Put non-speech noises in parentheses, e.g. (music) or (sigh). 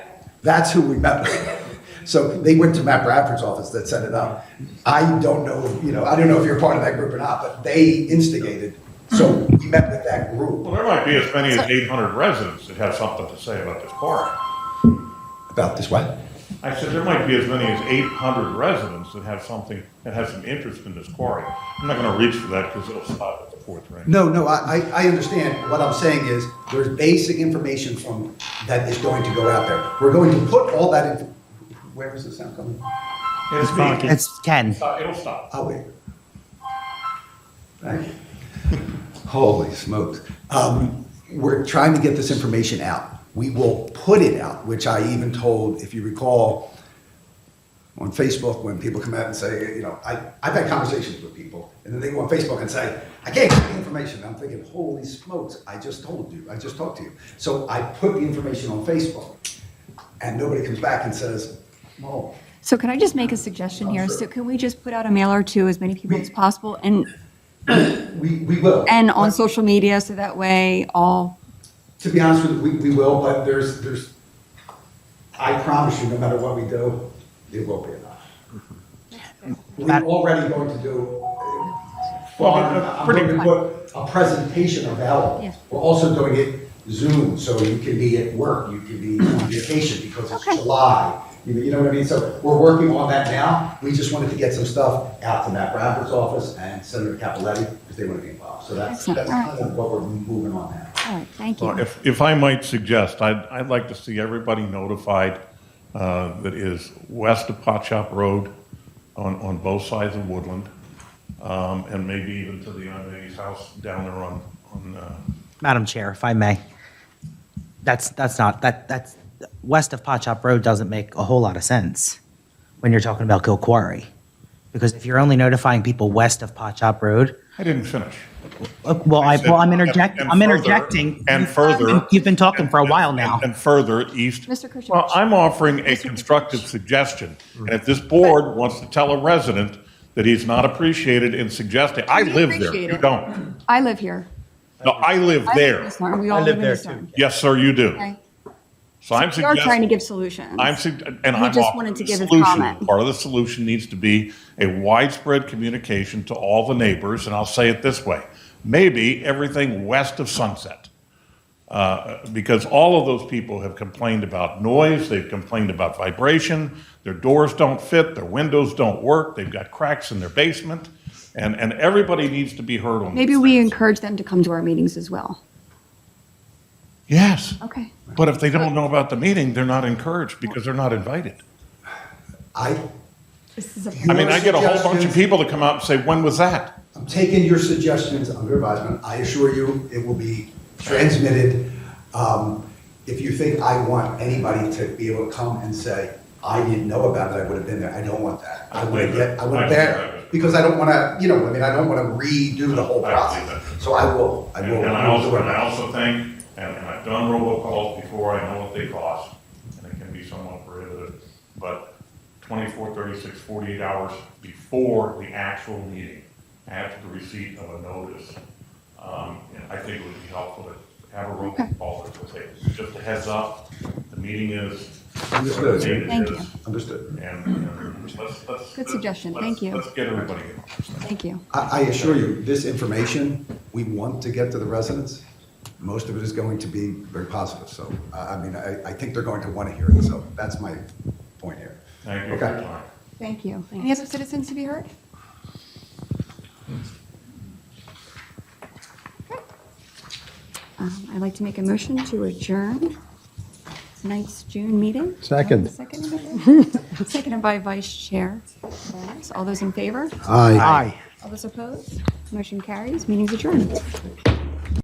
That's who we met with. So they went to Matt Bradford's office that set it up. I don't know, you know, I don't know if you're part of that group or not, but they instigated. So we met with that Well, group there might be as many as 800 residents that have something to say about this park. about this one. I said, there might be as many as 800 residents that have something, that have some interest in this quarry. I'm not going to reach for that because it'll stop at the fourth ring. No, no, I, I I understand. What I'm saying is, there's basic information from, that is going to go out there. We're going to put all that in, where is the sound coming? It's me. It's Ken. Stop- It'll stop. I'll wait. Thank you. (laughs) Holy smokes. Um, we're trying to get this information out. We will put it out, which I even told, if you recall, on Facebook when people come out and say, you know, I, I've had conversations with people, and then they go on Facebook and say, I can't get the information. I'm thinking, holy smokes, I just told you, I just talked to you. So I put the information on Facebook, and nobody comes back and says, well, So can I just make a suggestion Oh, here? So can we just put out a mailer to as many people as possible and, we, we will. and on But- social media so that way all, To be honest with you, we, we will, but there's, there's, I promise you, no matter what we do, it will be enough. We're already going to do, uh, Mm-hmm. Well, I'm uh, I'm pretty- going to put a presentation Yeah. available. We're also doing it Zoom, so you can be at work, you can be on vacation because it's July. You know- you know what I mean? So we're working on that now. We just wanted to get some stuff out to Matt Bradford's office and Senator Capoletti because they want to be involved. So that's, Excellent. that's All right. kind of what we're moving on now. all right, thank Well, you. If, if I might suggest, I'd, I'd like to see everybody notified uh, that is west of Pot Shop Road on, on both sides of Woodland, um, and maybe even to the young lady's house down there on, on, uh, Madam Chair, if I may. That's, that's not, that, that's, west of Pot Shop Road doesn't make a whole lot of sense when you're talking about Kill Quarry. Because if you're only notifying people west of Pot Shop Road, I didn't finish. uh, well, I, well, I'm And- interjecting, and I'm further- interjecting. And You've- further. You've been talking for a and- while and- now. And further, east. Mr. Krishovich. Well, I'm offering a Mr. Krishovich. constructive suggestion. And if this board wants to tell a resident that he's not appreciated in suggesting, I We live there, appreciate you it. don't. I live here. No, I live I live in there. East Orange. We all live in East Orange. Yes, sir, you do. Okay. So I'm We are trying to suggesting, give solutions. I'm, sug- and He I'm just offering wanted to a give his solution. comment. Part of the solution needs to be a widespread communication to all the neighbors, and I'll say it this way. Maybe everything west of Sunset. Uh, because all of those people have complained about noise, they've complained about vibration, their doors don't fit, their windows don't work, they've got cracks in their basement, and, and everybody needs to be heard on Maybe these we things. encourage them to come to our meetings as well. Yes. Okay. But if they don't know about the meeting, they're not encouraged because they're not invited. I, This is a, I mean, I get a whole bunch of people to come out and say, when was that? I'm taking your suggestions under advisement. I assure you, it will be transmitted. Um, If you think I want anybody to be able to come and say, I didn't know about it, I would have been there, I don't want that. I want to get, I want to bear, because I don't want to, you know, I mean, I don't want to redo the whole process. So I will, I And will. and I also, and I also think, and, and I've done robocalls before, I know what they cost, and it can be somewhat prohibitive, but 24, 36, 48 hours before the actual meeting, after the receipt of a notice, um, and I think it would be helpful to have a robocall that would say, just a heads up, the meeting is. Understood. the date Thank is, Understood. And, and let's, let's. Good suggestion. let's- Thank you. Let's get everybody in. thank you. I, I assure you, this information, we want to get to the residents. Most of it is going to be very positive, so, I, I mean, I, I think they're going to want to hear it, so that's my point here. Thank you for your Okay. time. Thank you. Any other citizens to be heard? Okay. Um, I'd like to make a motion to adjourn tonight's June meeting. Second. (laughs) Seconded Seconded by Vice Chair. All those in favor? Aye. Aye. All those opposed? Motion carries. Meeting's adjourned.